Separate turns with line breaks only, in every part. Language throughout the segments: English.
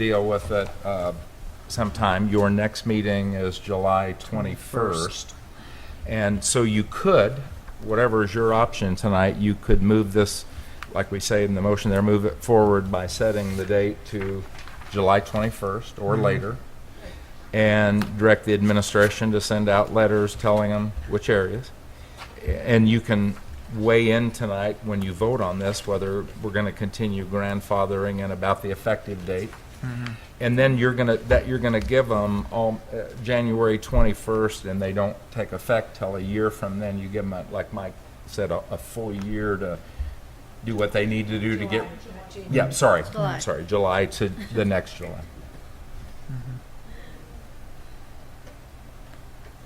deal with it uh, sometime. Your next meeting is July 21st. And so you could, whatever is your option tonight, you could move this, like we say in the motion there, move it forward by setting the date to July 21st or later, and direct the administration to send out letters telling them which areas. And you can weigh in tonight when you vote on this, whether we're going to continue grandfathering and about the effective date.
Mm-hmm.
And then you're going to, that you're going to give them all, uh, January 21st, and they don't take effect till a year from then. You give them, like Mike said, a, a full year to do what they need to do to get. Yeah,
Mhm.
sorry,
July.
sorry, July to the next July.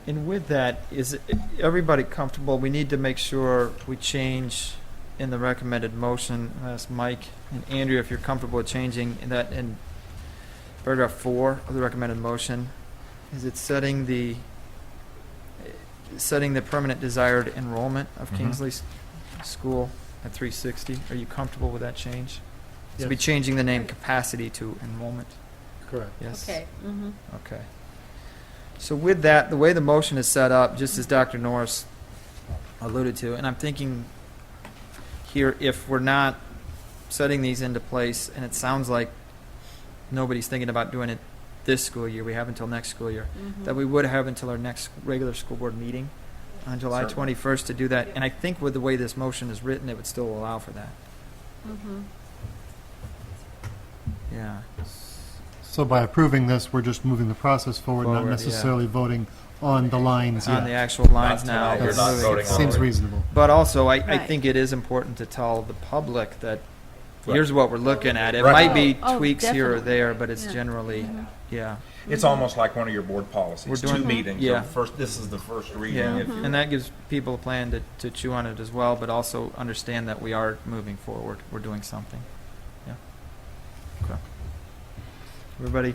And with that, is everybody comfortable? We need to make sure we change in the recommended motion, as Mike and Andrea, if you're comfortable with changing that in paragraph four of the recommended motion, is it setting the, setting the permanent desired enrollment of
Mhm.
Kingsley S- School at three sixty? Are you comfortable with that change? So be changing the name capacity to enrollment,
Correct.
yes?
Okay, mm-hmm.
Okay. So with that, the way the motion is set up, just as Dr. Norris alluded to, and I'm thinking here, if we're not setting these into place, and it sounds like nobody's thinking about doing it this school year, we have until next school year,
Mm-hmm.
that we would have until our next regular school board meeting on July
Certainly.
21st to do that. And I think with the way this motion is written, it would still allow for that.
Mm-hmm.
Yeah.
So by approving this, we're just moving the process forward,
Forward,
not
yeah.
necessarily voting on the lines
On the
yet.
actual lines now.
tonight,
you're
but
not
moving it
voting on it.
Seems
forward.
reasonable.
But also, I, I
Right.
think it is important to tell the public that
Right.
here's what we're looking at. It
Right.
might be
Oh, oh,
tweaks here or
definitely.
there, but it's
Yeah.
generally,
Mm-hmm.
yeah.
It's almost like one of your board
We're
policies,
doing-
two meetings.
Yeah.
The First, this is the first reading.
Yeah.
if
Uh-huh.
you-
And that gives people a plan to, to chew on it as well, but also understand that we are moving forward. We're doing something. Yeah. Okay. Everybody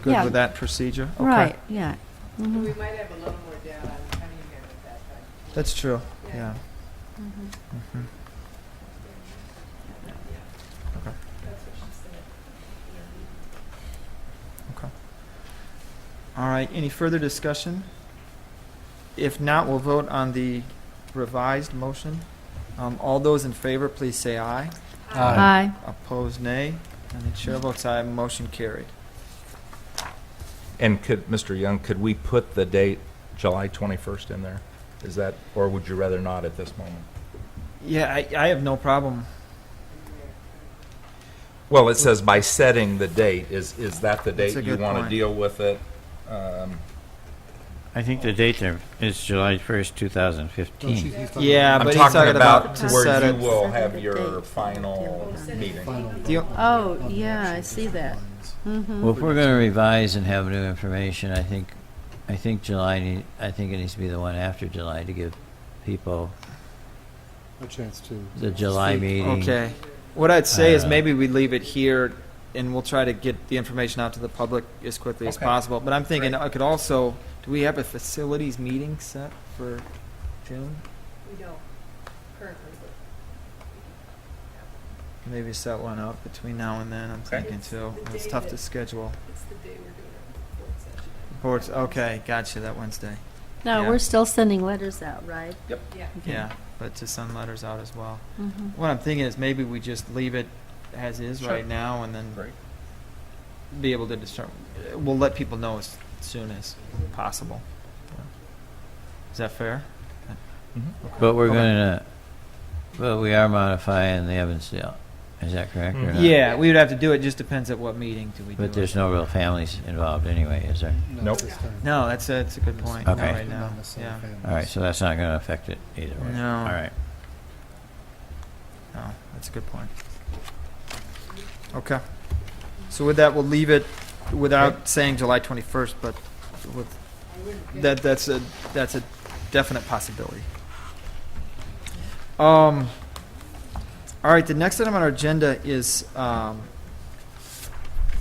good
Yeah.
with that procedure? Okay.
Right, yeah.
We
Mhm.
might have a little more data on how do you get it that, but.
That's true, yeah.
Mhm.
Mhm. Okay. Okay. All right, any further discussion? If not, we'll vote on the revised motion. Um, all those in favor, please say aye.
Aye.
Opposed, nay. And the chair votes aye, motion carried.
And could, Mr. Young, could we put the date July 21st in there? Is that, or would you rather not at this moment?
Yeah, I, I have no problem.
Well, it says by setting the date, is, is that the
That's
date
a
you
good
want to
point.
deal with it? Um,
I think the date there is July
Oh,
1st,
Don't
2015.
you think so?
Yeah,
I'm
but he's
talking about
to set
where you
it.
will
Set
have
the
your
date.
final
Yeah.
meeting.
Final
Do you-
vote on the-
Oh,
on the
yeah,
actual
I see
different
that.
lines.
Mhm.
Well, if we're going to revise and have new information, I think, I think July, need- I think it needs to be the one after July to give people
A chance to.
the July
speak.
meeting.
Okay. What I'd say is
Uh,
maybe we leave it here and we'll try to get the information out to the public as quickly as
Okay.
possible. But I'm thinking I could also, do we have a facilities meeting set for June?
We don't currently, but
Maybe set one up between now and then, I'm
Okay.
thinking too.
It's the
It's
day
tough
that-
to schedule.
it's the day we're doing our board session.
Boards, okay, gotcha, that Wednesday.
No,
Yeah.
we're still sending letters out, right?
Yeah.
Okay.
Yeah, but to send letters out as well.
Mhm.
What I'm thinking is maybe we just leave it as is
Sure.
right now and then
Great.
be able to determine, we'll let people know as soon as possible. Is that fair?
But we're
Okay.
going to, but we are modifying the Evansdale. Is that correct or
Mhm.
not?
Mm. Yeah, we would have to do it, just depends at what meeting do we do it.
But there's no real families involved anyway, is there?
Not
Nope.
this time.
No, that's a, that's a good point, not
Okay.
right now,
Not necessarily
yeah.
families.
All right, so that's not going to affect it either way.
No.
All right.
No, that's a good point. Okay. So with that, we'll leave it without saying July 21st, but with, that, that's a, that's a definite possibility. Um, all right, the next item on our agenda is, um,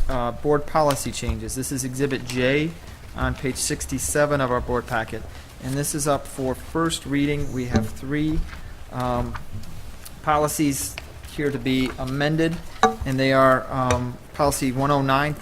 uh, board policy changes. This is Exhibit J on page 67 of our board packet. And this is up for first reading. We have three, um, policies here to be amended, and they are um, policy 109.0.